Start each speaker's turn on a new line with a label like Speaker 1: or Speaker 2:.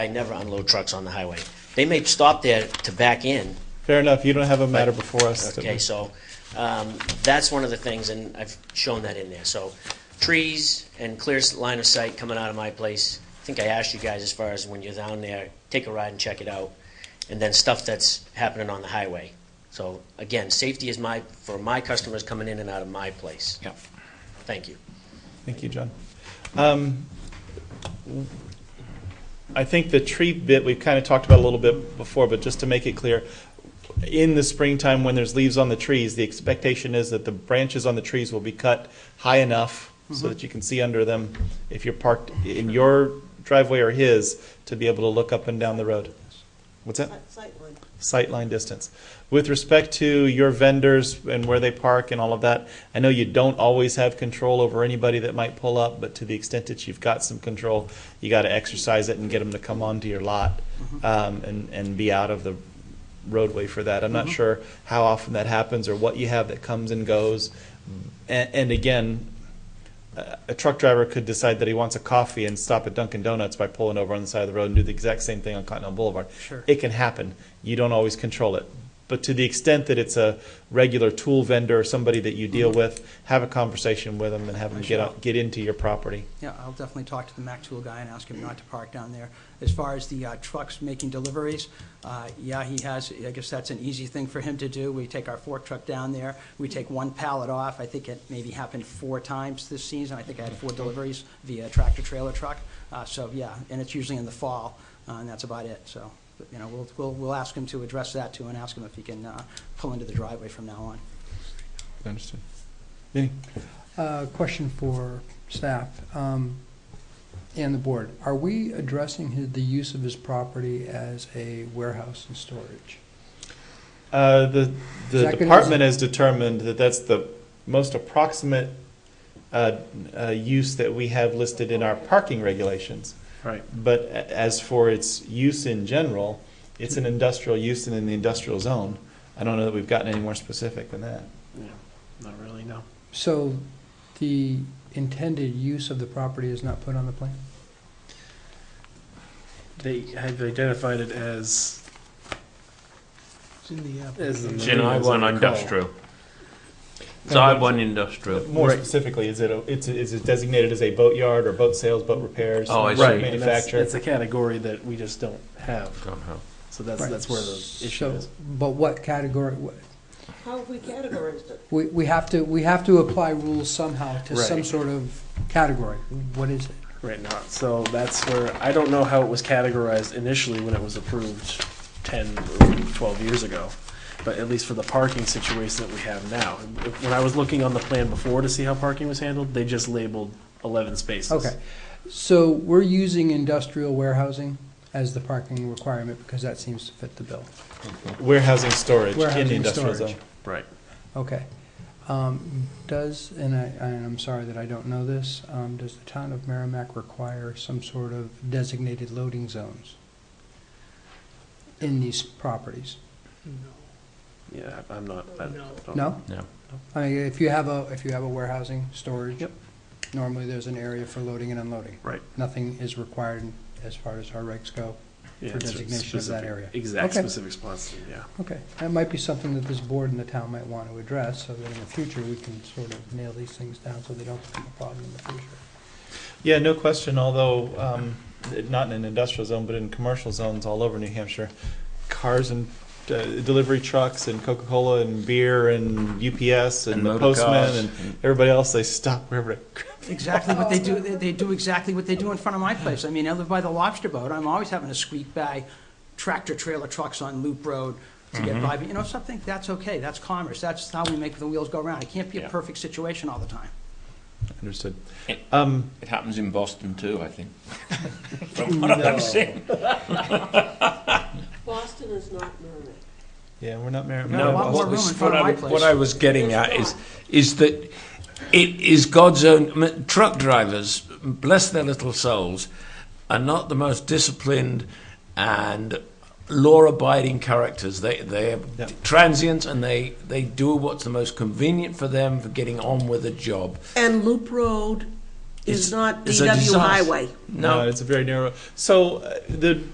Speaker 1: I never unload trucks on the highway. They may stop there to back in,
Speaker 2: Fair enough, you don't have a matter before us.
Speaker 1: okay, so, um, that's one of the things, and I've shown that in there, so. Trees and clear s- line of sight coming out of my place, I think I asked you guys as far as when you're down there, take a ride and check it out. And then stuff that's happening on the highway. So, again, safety is my, for my customers coming in and out of my place.
Speaker 3: Yep.
Speaker 1: Thank you.
Speaker 2: Thank you, John. Um, I think the tree bit, we've kind of talked about a little bit before, but just to make it clear, in the springtime, when there's leaves on the trees, the expectation is that the branches on the trees will be cut high enough
Speaker 1: Mm-hmm.
Speaker 2: so that you can see under them if you're parked in your driveway or his, to be able to look up and down the road. What's that?
Speaker 4: Sightline.
Speaker 2: sightline distance. With respect to your vendors and where they park and all of that, I know you don't always have control over anybody that might pull up, but to the extent that you've got some control, you got to exercise it and get them to come onto your lot um, and, and be out of the roadway for that. I'm not sure how often that happens or what you have that comes and goes. And, and again, a a truck driver could decide that he wants a coffee and stop at Dunkin' Donuts by pulling over on the side of the road and do the exact same thing on Continental Boulevard.
Speaker 3: Sure.
Speaker 2: It can happen. You don't always control it. But to the extent that it's a regular tool vendor or somebody that you deal with, have a conversation with them and have them
Speaker 3: I
Speaker 2: get
Speaker 3: shall.
Speaker 2: out, get into your property.
Speaker 3: Yeah, I'll definitely talk to the Mack Tool guy and ask him not to park down there. As far as the uh, trucks making deliveries, uh, yeah, he has, I guess that's an easy thing for him to do. We take our fork truck down there, we take one pallet off. I think it maybe happened four times this season. I think I had four deliveries via tractor-trailer truck. Uh, So, yeah, and it's usually in the fall, uh, and that's about it, so, but, you know, we'll, we'll, we'll ask him to address that too and ask him if he can uh, pull into the driveway from now on.
Speaker 2: Understood. Vinny?
Speaker 5: Uh, Question for staff um, and the board. Are we addressing his- the use of his property as a warehouse and storage?
Speaker 2: Uh, the
Speaker 5: Is
Speaker 2: the
Speaker 5: that gonna-
Speaker 2: department has determined that that's the most approximate uh, uh, use that we have listed in our parking regulations.
Speaker 5: Right.
Speaker 2: But a- as for its use in general, it's an industrial use and in the industrial zone. I don't know that we've gotten any more specific than that.
Speaker 6: Not really, no.
Speaker 5: So the intended use of the property is not put on the plan?
Speaker 6: They have identified it as,
Speaker 3: It's in the uh,
Speaker 6: as the.
Speaker 7: It's in I one industrial. It's I one industrial.
Speaker 2: More
Speaker 6: Right.
Speaker 2: specifically, is it a, it's is it designated as a boat yard or boat sales, boat repairs,
Speaker 7: Oh, I see.
Speaker 2: boat
Speaker 6: Right, and that's,
Speaker 2: manufacturer?
Speaker 6: that's a category that we just don't have,
Speaker 7: Don't know.
Speaker 6: so that's, that's where the issue
Speaker 5: So-
Speaker 6: is.
Speaker 5: But what category, what-
Speaker 4: How have we categorized it?
Speaker 5: we we have to, we have to apply rules somehow to some
Speaker 6: Right.
Speaker 5: sort of category. What is it?
Speaker 6: Right now, so that's where, I don't know how it was categorized initially when it was approved ten or twelve years ago. But at least for the parking situation that we have now. When I was looking on the plan before to see how parking was handled, they just labeled eleven spaces.
Speaker 5: Okay. So we're using industrial warehousing as the parking requirement because that seems to fit the bill.
Speaker 2: Warehousing storage in the
Speaker 5: Warehousing
Speaker 2: industrial
Speaker 5: storage.
Speaker 2: zone.
Speaker 6: Right.
Speaker 5: Okay. Um, Does, and I, and I'm sorry that I don't know this, um, does the town of Merrimack require some sort of designated loading zones in these properties?
Speaker 6: Yeah, I'm not. I don't-
Speaker 5: No?
Speaker 7: No.
Speaker 5: I mean, if you have a, if you have a warehousing, storage,
Speaker 6: Yep.
Speaker 5: normally there's an area for loading and unloading.
Speaker 6: Right.
Speaker 5: Nothing is required as far as our regs go.
Speaker 6: Yeah,
Speaker 5: for
Speaker 6: it's
Speaker 5: designation of that
Speaker 6: specific-
Speaker 5: area.
Speaker 6: Exact
Speaker 5: Okay.
Speaker 6: specific spots, yeah.
Speaker 5: Okay, that might be something that this board and the town might want to address, so that in the future, we can sort of nail these things down so they don't become a problem in the future.
Speaker 2: Yeah, no question, although, um, it- not in an industrial zone, but in commercial zones all over New Hampshire, cars and, uh, delivery trucks and Coca-Cola and beer and UPS and
Speaker 7: And
Speaker 2: the
Speaker 7: motor
Speaker 2: postman
Speaker 7: cars.
Speaker 2: and everybody else, they stop wherever.
Speaker 3: Exactly what they do, they they do exactly what they do in front of my place. I mean, I live by the lobster boat, I'm always having to squeak by tractor trailer trucks on Loop Road to get by, but you know something, that's okay, that's commerce, that's how we make the wheels go round. It can't be a
Speaker 6: Yeah.
Speaker 3: perfect situation all the time.
Speaker 2: Understood. Um,
Speaker 7: It happens in Boston too, I think. From what I've seen.
Speaker 4: Boston is not Merrimack.
Speaker 2: yeah, we're not married.
Speaker 3: No,
Speaker 2: we're
Speaker 3: a
Speaker 2: not
Speaker 3: lot
Speaker 2: Boston.
Speaker 3: more
Speaker 7: What
Speaker 3: room in
Speaker 7: was,
Speaker 3: front
Speaker 7: what
Speaker 3: of
Speaker 7: I,
Speaker 3: my
Speaker 7: what I
Speaker 3: place.
Speaker 7: was getting
Speaker 4: There's
Speaker 7: at
Speaker 4: not.
Speaker 7: is, is that it is God's own, I mean, truck drivers, bless their little souls, are not the most disciplined and law-abiding characters. They, they are
Speaker 2: Yeah.
Speaker 7: transient and they, they do what's the most convenient for them for getting on with a job.
Speaker 8: And Loop Road
Speaker 7: It's-
Speaker 8: is not
Speaker 7: it's a
Speaker 8: DW
Speaker 7: disaster.
Speaker 8: Highway.
Speaker 2: No, it's a very narrow. So uh, the